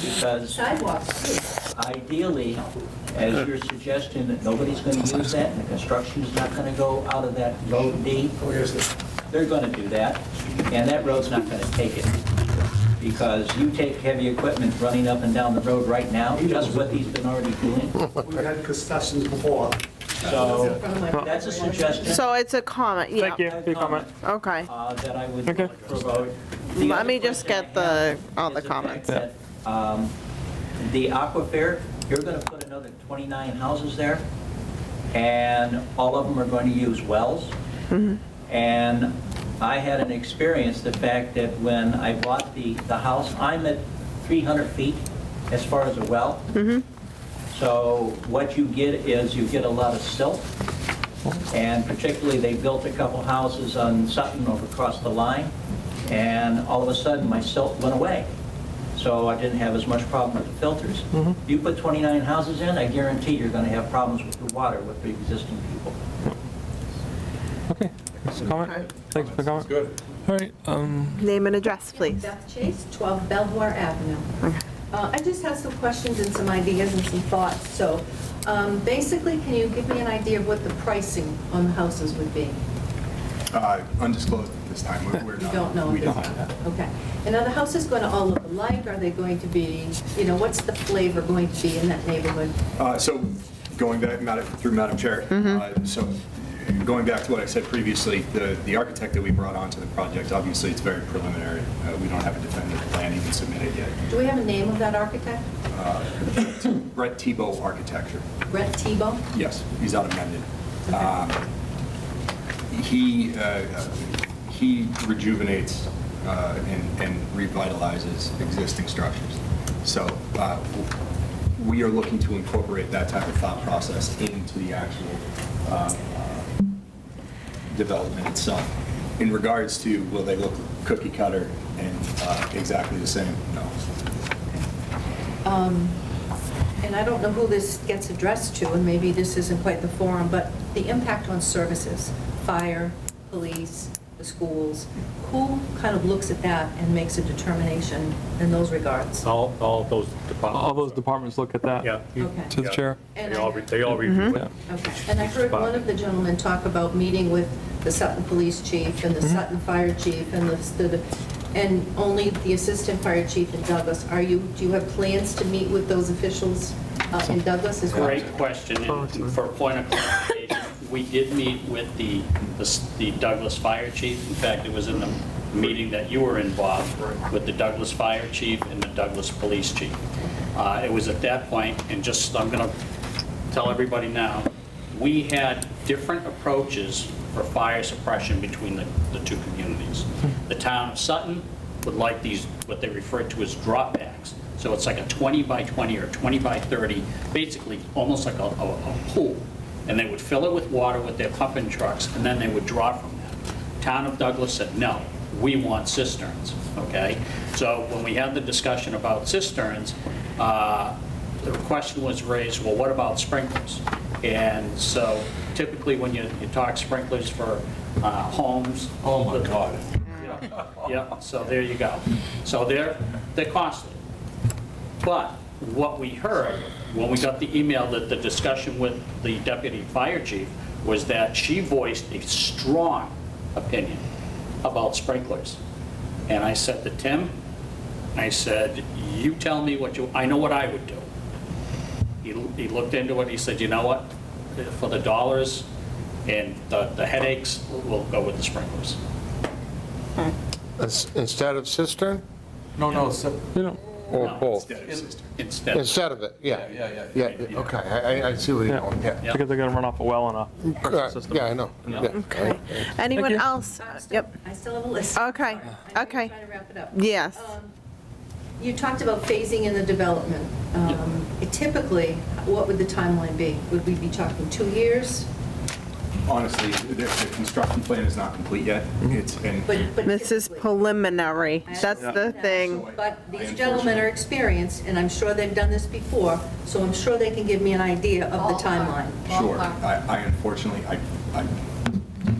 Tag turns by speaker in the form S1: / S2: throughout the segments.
S1: because
S2: Sidewalks,
S1: ideally, as you're suggesting, that nobody's going to use that, and the construction's not going to go out of that road D, they're going to do that, and that road's not going to take it. Because you take heavy equipment running up and down the road right now, just what he's been already doing.
S3: We've had discussions before.
S1: So that's a suggestion.
S4: So it's a comment, yeah.
S5: Thank you for your comment.
S4: Okay.
S1: uh, that I would
S5: Okay.
S1: promote. The
S4: Let
S1: other
S4: me just
S1: question I
S4: get the-
S1: have
S4: all
S1: is
S4: the
S1: fact
S4: comments.
S1: that, um, The aquifer, you're going to put another 29 houses there, and all of them are going to use wells.
S4: Mm-hmm.
S1: And I had an experience, the fact that when I bought the, the house, I'm at 300 feet as far as a well.
S4: Mm-hmm.
S1: So what you get is you get a lot of silt, and particularly, they built a couple houses on Sutton over across the line, and all of a sudden, my silt went away. So I didn't have as much problem with the filters. You put 29 houses in, I guarantee you're going to have problems with the water with the existing people.
S5: Okay, thanks for the comment. Thanks for the comment. Good. All right, um,
S4: Name and address, please.
S2: Beth Chase, 12 Belvoir Avenue. Uh, I just have some questions and some ideas and some thoughts. So um, basically, can you give me an idea of what the pricing on the houses would be?
S6: Uh, Undisclosed at this time. We're- We're
S2: You
S6: not.
S2: don't know.
S6: We
S2: at
S6: don't.
S2: this time. Okay. And are the houses going to all look alike? Are they going to be, you know, what's the flavor going to be in that neighborhood?
S6: Uh, So going back, Madam- through Madam Chair, uh, so going back to what I said previously, the the architect that we brought onto the project, obviously, it's very preliminary. Uh, We don't have a definitive plan even submitted yet.
S2: Do we have a name of that architect?
S6: Brett Tebow Architecture.
S2: Brett Tebow?
S6: Yes, he's out of Mendon.
S2: Okay.
S6: Um, He, uh, he rejuvenates uh, and and revitalizes existing structures. So uh, we are looking to incorporate that type of thought process into the actual uh, development itself. In regards to, will they look cookie cutter and uh, exactly the same? No.
S2: Um, And I don't know who this gets addressed to, and maybe this isn't quite the forum, but the impact on services, fire, police, the schools, who kind of looks at that and makes a determination in those regards?
S7: All, all those
S5: all those
S7: departments.
S5: departments look at that.
S7: Yeah. you-
S2: Okay.
S5: To the
S7: yeah.
S5: chair. Mm-hmm.
S2: And
S7: They
S2: I-
S7: all, re- they all review it.
S2: Okay, and I heard one of the gentlemen talk about meeting with the Sutton Police Chief and the Sutton Fire Chief and the- the, and only the Assistant Fire Chief in Douglas. Are you, do you have plans to meet with those officials uh, in Douglas as well?
S8: Great question, and for a point of clarification, we did meet with the the Douglas Fire Chief. In fact, it was in the meeting that you were involved with the Douglas Fire Chief and the Douglas Police Chief. Uh, It was at that point, and just, I'm going to tell everybody now, we had different approaches for fire suppression between the the two communities. The town of Sutton would like these, what they refer to as drop packs. So it's like a 20 by 20 or 20 by 30, basically almost like a, a a pool. And they would fill it with water with their pumping trucks, and then they would draw from that. Town of Douglas said, no, we want cisterns, okay? So when we had the discussion about cisterns, uh, the question was raised, well, what about sprinklers? And so typically, when you, you talk sprinklers for uh, homes. Oh, my God. Yeah, so there you go. So they're, they're costly. But what we heard, when we got the email that the discussion with the deputy fire chief was that she voiced a strong opinion about sprinklers. And I said to Tim, I said, you tell me what you, I know what I would do. He, he looked into it, he said, you know what? For the dollars and the the headaches, we'll go with the sprinklers.
S9: Ins- Instead of cistern
S10: No, no, so-
S5: You know,
S9: or
S8: No,
S9: both?
S6: Instead of sister.
S8: Instead, of-
S9: Instead of it, yeah.
S10: Yeah, yeah,
S9: Yeah,
S10: yeah.
S8: Yeah.
S9: okay, I, I- I see where you're going, yeah.
S8: Yeah.
S5: because they're gonna run off a well and a
S9: Uh,
S5: pressure system.
S9: Yeah, I know.
S8: Yeah.
S9: Yeah.
S4: Okay. Anyone
S5: you.
S4: else?
S2: I'm still-
S4: Yep.
S2: I still have a list.
S4: Okay, okay.
S2: I'm trying to wrap it up.
S4: Yes.
S2: Um, You talked about phasing in the development. Um, Typically, what would the timeline be? Would we be talking two years?
S6: Honestly, the the construction plan is not complete yet. It's, and
S2: But but
S4: This is
S2: typically-
S4: preliminary.
S2: I
S4: That's
S2: understand
S4: the
S2: that.
S4: thing.
S2: But these gentlemen are experienced, and I'm sure they've done this before, so I'm sure they can give me an idea of the timeline.
S6: Sure. I I unfortunately, I, I-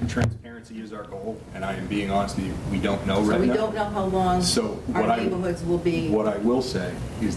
S6: transparency is our goal, and I am being honest with you, we don't know
S2: So
S6: right
S2: we
S6: now.
S2: don't know how long
S6: So what
S2: our
S6: I-
S2: neighborhoods will be.
S6: What I will say is